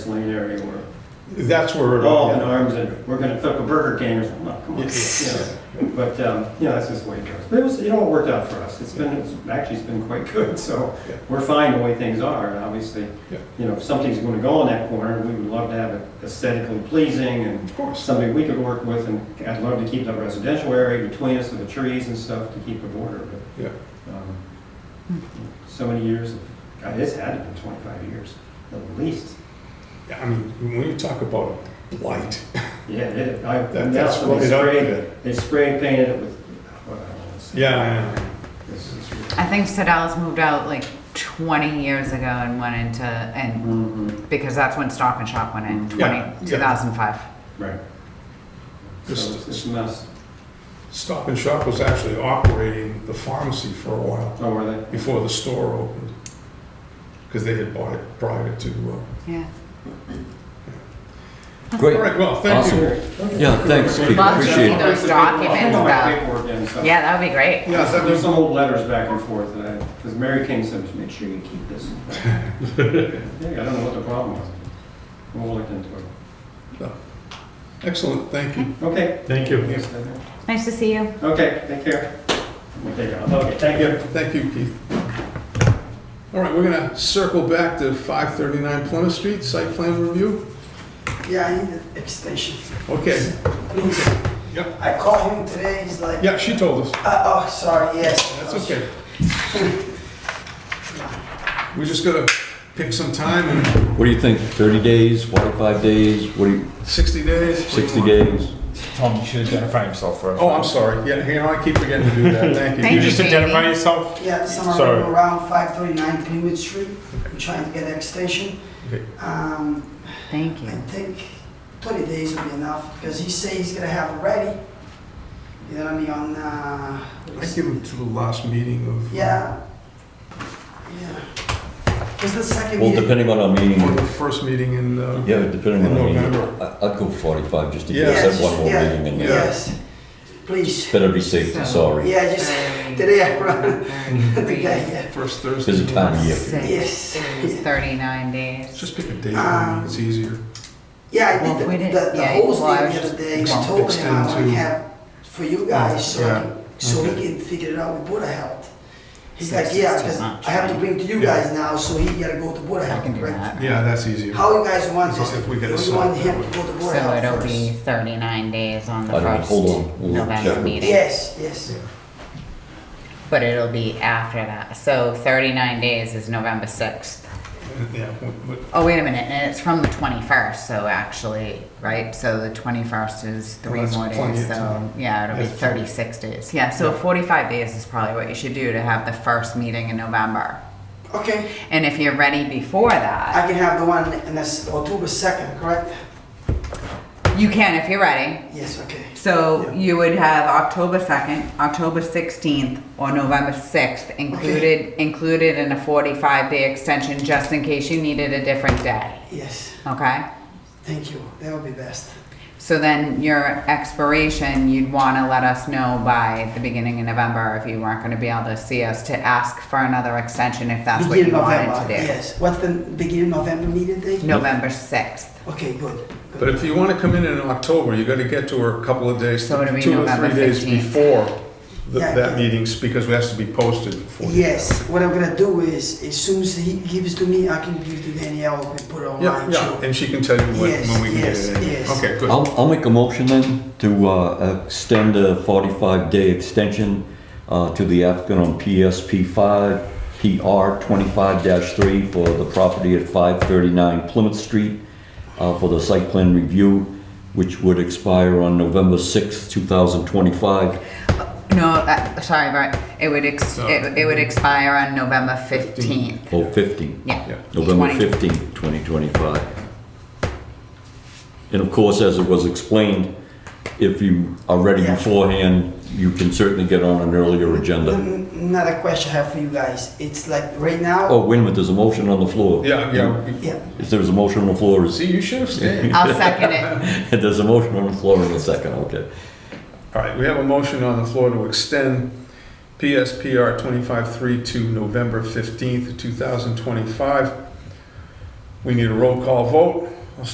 lane area where That's where. it- all in arms and we're gonna cook a Burger King or something, Oh, come on. you know. But, um, you know, that's just the way it goes. But it was, it all worked out for us. It's been, it's actually, it's been quite good, so Yeah. we're fine the way things are. And obviously, Yeah. you know, if something's gonna go in that corner, we would love to have it aesthetically pleasing and Of course. something we could work with, and I'd love to keep that residential area between us with the trees and stuff to keep the border, but, Yeah. um, so many years, of God, it's had to be twenty-five years, at least. Yeah, I mean, when you talk about a blight, Yeah, it, I, that, that's that's when what they it up sprayed, to. they spray painted it with, what I want to say. Yeah, This is really- I think Sedell's moved out like 20 years ago and went into, and Mhm, because that's when Stop and Shop went in, 20, Yeah, yeah. 2005. Right. So Just- it's it's a mess. Stop and Shop was actually operating the pharmacy for a while Oh, were they? before the store opened. Because they had bought it prior to, uh, Yeah. all Great. right, well, thank you. Awesome. Yeah, thanks, Pete. Love to see Appreciate it. those I'll hang documents all my though. paperwork in and stuff. Yeah, that would be great. Yeah, that There's was, some old letters back and forth that I, because Mary King said, just make sure you keep this. Yeah, I don't know what the problem was. We'll look into it. excellent, thank you. Okay. Thank you. Yes, I know. Nice to see you. Okay, take care. We'll take it out. Okay, thank you. Yeah, thank you, Keith. All right, we're gonna circle back to 539 Plymouth Street, site plan review. Yeah, I need an extension. Okay, Please. Yep. I called him today, he's like, yeah, she told us. uh, oh, sorry, yes. That's okay. We just gotta pick some time in What do you think? 30 days, 45 days, what do you, 60 days. what do you 60 want? days? Tom, you should identify himself first. Oh, I'm sorry. Yeah, you know, I keep forgetting to do that. Thank you. Thank You You just just- identify yourself? Yeah, somewhere Sorry. around 539 Greenwood Street, I'm trying to get an extension. Okay. Um, Thank I you. think 30 days will be enough, because he says he's gonna have it ready, you know what I mean, on, uh, what I is give him to the last meeting of. yeah. Yeah. Was the second Well, meeting? depending on our meeting, Or the first meeting in, uh, yeah, depending on our In meeting, November. I- I'd go 45 just to give Yeah. us Yes, that one more yeah, meeting in there. Yes, please, Better be safe than sorry. yeah, just, today I run, the guy, yeah. first Thursday. Busy time of year. Six Yes. is 39 days. Just pick a date. I mean, It's easier. Yeah, I Well, did we the, didn't- the, the yeah, whole well, I thing was the other just- day, Well, I told him I extend to- would have for you guys, so, yeah, I can- so we okay. can figure it out with Buddha Health. He's Six like, is yeah, too because much, I have to right? bring to you Yeah. guys now, so he gotta go to Buddha I Health, can do right? that. Yeah, that's easier. How you guys want So this, if we get a we slot want that him way. to go to Buddha So it'll Health be first. 39 days on the I don't know, first hold on, we'll November check. meeting. Yes, yes, But it'll be after that. So 39 days is November 6th. Yeah, but- Oh, wait a minute, and it's from the twenty-first, so actually, right, so the twenty-first is three that's more plenty days, of so, time. yeah, it'll be That's plenty. thirty-six days. Yeah, so forty-five days is probably what you should do to have the first meeting in November. okay, And if you're ready before that, I can have the one in this, October second, correct? you can if you're ready. Yes, okay, So you would have October second, October sixteenth, or November sixth included, included in a forty-five day extension, just in case you needed a different day, yes, okay? thank you, that would be best. So then your expiration, you'd want to let us know by the beginning of November if you weren't going to be able to see us to ask for another extension if that's what you Beginning November. wanted to Yes, what's the beginning November meeting do. date? November 6th. Okay, good. good. But if you want to come in in October, you got to get to her a couple of days, So it'll be two or November three days 15th. before the- Yeah. that meeting's, because it has to be posted for. Yes, what I'm gonna do is, as soon as he gives to me, I can give to Danielle and put it Yeah, online yeah, too. and she can tell you when, Yes, when we can get yes, it in. yes. Okay, good. I'll, I'll make a motion then to uh, extend a 45-day extension uh, to the applicant on PSP 5, PR 25-3 for the property at 539 Plymouth Street uh, for the site plan review, which would expire on November 6th, 2025. No, uh, sorry, but it would ex- No. it, it would expire on November 15th. Oh, 15. Yeah. Yeah. November 20. 15, 2025. And of course, as it was explained, if you are ready Yeah. beforehand, you can certainly get on an earlier uh, agenda. N- Another question I have for you guys, it's like right now, Oh, wait a minute, there's a motion on the floor. Yeah, yeah. yeah, If there's a motion on the floor, is, See, you should have stayed. I'll second it. there's a motion on the floor in a second, okay. All right, we have a motion on the floor to extend PSPR 25-3 to November 15th, 2025. We need a roll call vote.